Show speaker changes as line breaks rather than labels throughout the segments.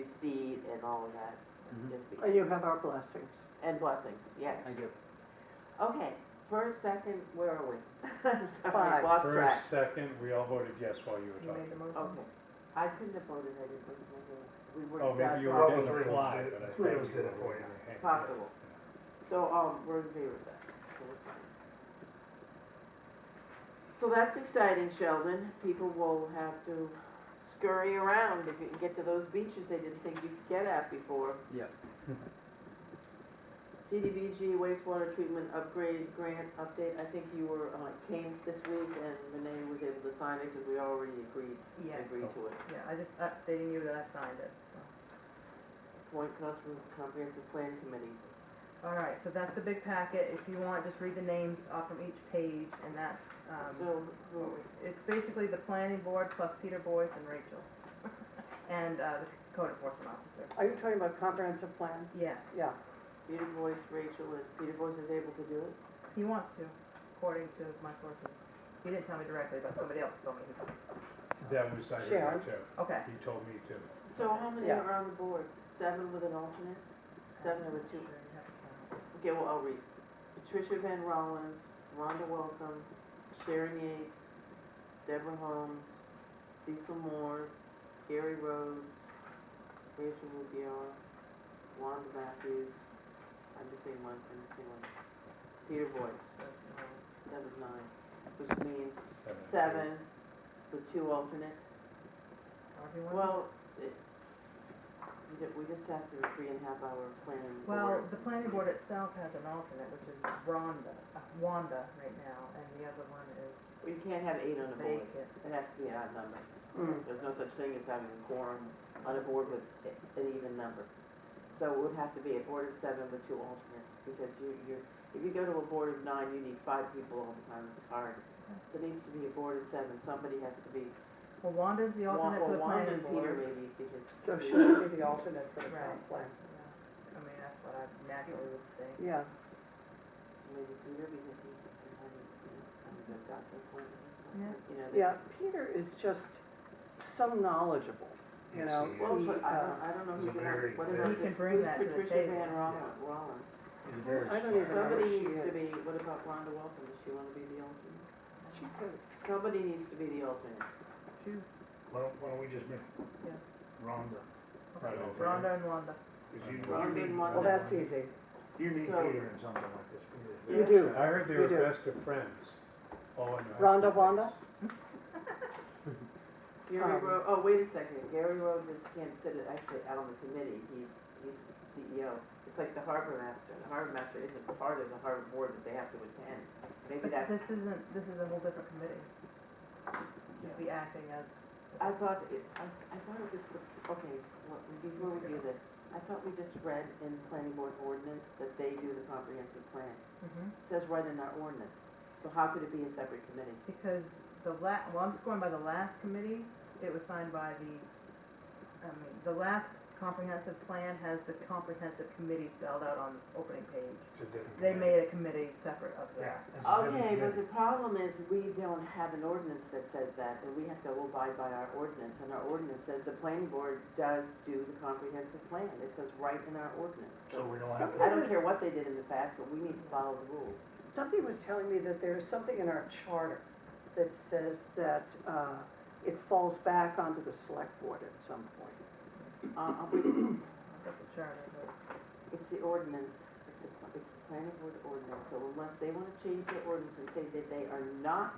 seed and all of that,
Mm-hmm.
Mhm.
just because,
You have our blessings.
and blessings, yes.
I do.
Okay, first, second, where are we? I'm sorry,
Five.
lost track.
First, second, we all voted yes while you
You
were
made the
talking.
motion?
Okay, I couldn't have voted, I didn't listen to it. We were.
Oh, maybe you
that
were
far.
doing
Three of
the
us
fly,
did it.
but I think you
Three
were.
of us did it for you.
doing the hand.
Possible. So, um, we're in favor of that, so we're fine. So that's exciting, Sheldon. People will have to scurry around if you can get to those beaches they didn't think you could get at before.
Yep.
CDBG wastewater treatment upgrade grant update, I think you were, uh, came this week and Renee was able to sign it because we already agreed,
Yes.
agreed to it.
Yeah, I just updating you that I signed it,
Point Comprehensive- Comprehensive Plan Committee.
All right, so that's the big packet. If you want, just read the names off from each page, and that's, um,
So, who-
it's basically the planning board plus Peter Boyce and Rachel, and uh, the code enforcement officer.
Are you talking about comprehensive plan?
Yes.
Yeah.
Peter Boyce, Rachel, and Peter Boyce is able to do it?
He wants to, according to my sources. He didn't tell me directly, but somebody else told me he does.
That was, I heard
Sharon.
that too.
Okay.
He told me too.
So how many
Yeah.
are on the board? Seven with an alternate? Seven with two. Okay, well, I'll read. Patricia Van Rollins, Rhonda Welcome, Sharon Yates, Deborah Holmes, Cecil Moore, Gary Rhodes, Rachel Rubio, Wanda Matthews, I'm just saying one, I'm just saying one. Peter Boyce, that was nine, which means
Seven.
seven with two alternates.
Everyone?
Well, it, we ju- we just sat through a three and a half hour planning
Well,
board.
the planning board itself has an alternate, which is Rhonda, uh, Wanda right now, and the other one is
You can't have eight on a board.
vacant.
It has to be an odd number.
Hmm.
There's no such thing as having a quorum on a board with a- an even number. So it would have to be a board of seven with two alternates, because you, you, if you go to a board of nine, you need five people all the time, it's hard. So it needs to be a board of seven, somebody has to be,
Well, Wanda's the
Wa-
alternate for
well,
the
Wanda
planning
and Peter
board.
maybe, because.
So she would be the alternate for the town
Right.
plan.
Yeah. I mean, that's what I naturally would think.
Yeah,
Maybe Peter, because he's, I mean, he's a doctor,
Yeah.
you know. they-
yeah, Peter is just so knowledgeable, you
Yes,
know.
he
Well,
he,
but I don't,
uh,
I don't know
He's
who
a
can,
very
what
good-
about
He can
this-
bring
who's
that to the
Patricia
table,
Van
yeah.
Roll- Rollins?
He's very
I don't
smart.
even know where
Somebody
she
needs to
is.
be, what about Rhonda Welcome, does she wanna be the alternate?
She could.
Somebody needs to be the alternate.
Choose
Why don't, why don't we just make
Yeah.
Rhonda,
Right over there.
Rhonda and Wanda.
because you,
Well,
you
being
need,
one
Well,
of
that's easy.
you need
So-
Peter in something like this. Peter's
You
very
do.
smart.
I heard they
You
were
do.
best of friends. Oh, and.
Rhonda Wanda?
Gary
Um,
Ro, oh, wait a second, Gary Rhodes is, can't sit it, actually out on the committee, he's, he's the CEO. It's like the harbor master, the harbor master isn't part of the harbor board, but they have to attend. Maybe
But
that's,
this isn't, this is a whole different committee. You'd be acting as.
I thought, it- I, I thought it was, okay, well, before we do this, I thought we just read in planning board ordinance that they do the comprehensive plan.
Mhm.
says right in our ordinance, so how could it be a separate committee?
Because the la, well, I'm just going by the last committee, it was signed by the, I mean, the last comprehensive plan has the comprehensive committee spelled out on the opening page.
It's a different.
They
committee.
made a committee separate of
Yeah. it's a
that.
different
Okay, but
committee.
the problem is, we don't have an ordinance that says that, and we have to abide by our ordinance, and our ordinance says the planning board does do the comprehensive plan, it says right in our ordinance,
So
so.
we don't have
I
to,
don't care what they did in the past, but we need to follow the rules.
Somebody was telling me that there is something in our charter that says that uh, it falls back onto the select board at some point.
Uh, uh, we-
That's the charter, but
it's the ordinance, it's the, pl- it's the planning board ordinance, so unless they wanna change their ordinance and say that they are not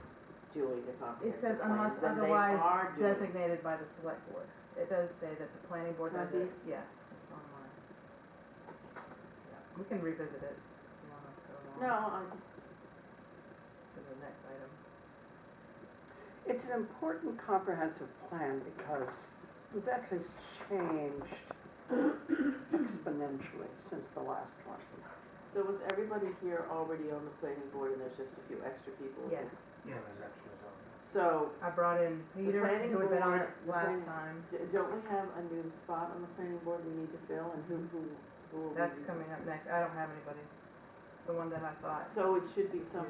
doing the
it
comprehensive
says
plan,
unless
then they
otherwise
are doing it.
designated by the select board. It does say that the planning board does
Does
it, yeah, it's online. Yeah, We can revisit it if you wanna go
No,
along
I just,
to the next item.
It's an important comprehensive plan because that has changed exponentially since the last one.
So was everybody here already on the planning board and there's just a few extra people?
Yeah,
yeah, there's extras on there.
So,
I brought in Peter,
planning
who had been on
board-
it
the planning-
last time.
d- don't we have a new spot on the planning board we need to fill and who, who, who will we?
That's coming up next, I don't have anybody, the one that I thought.
So it should be some,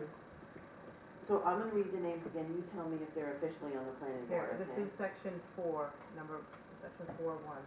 so I'm gonna read the names again, you tell me if they're officially on the planning board,
Here, this
okay?
is section four, number, section four one.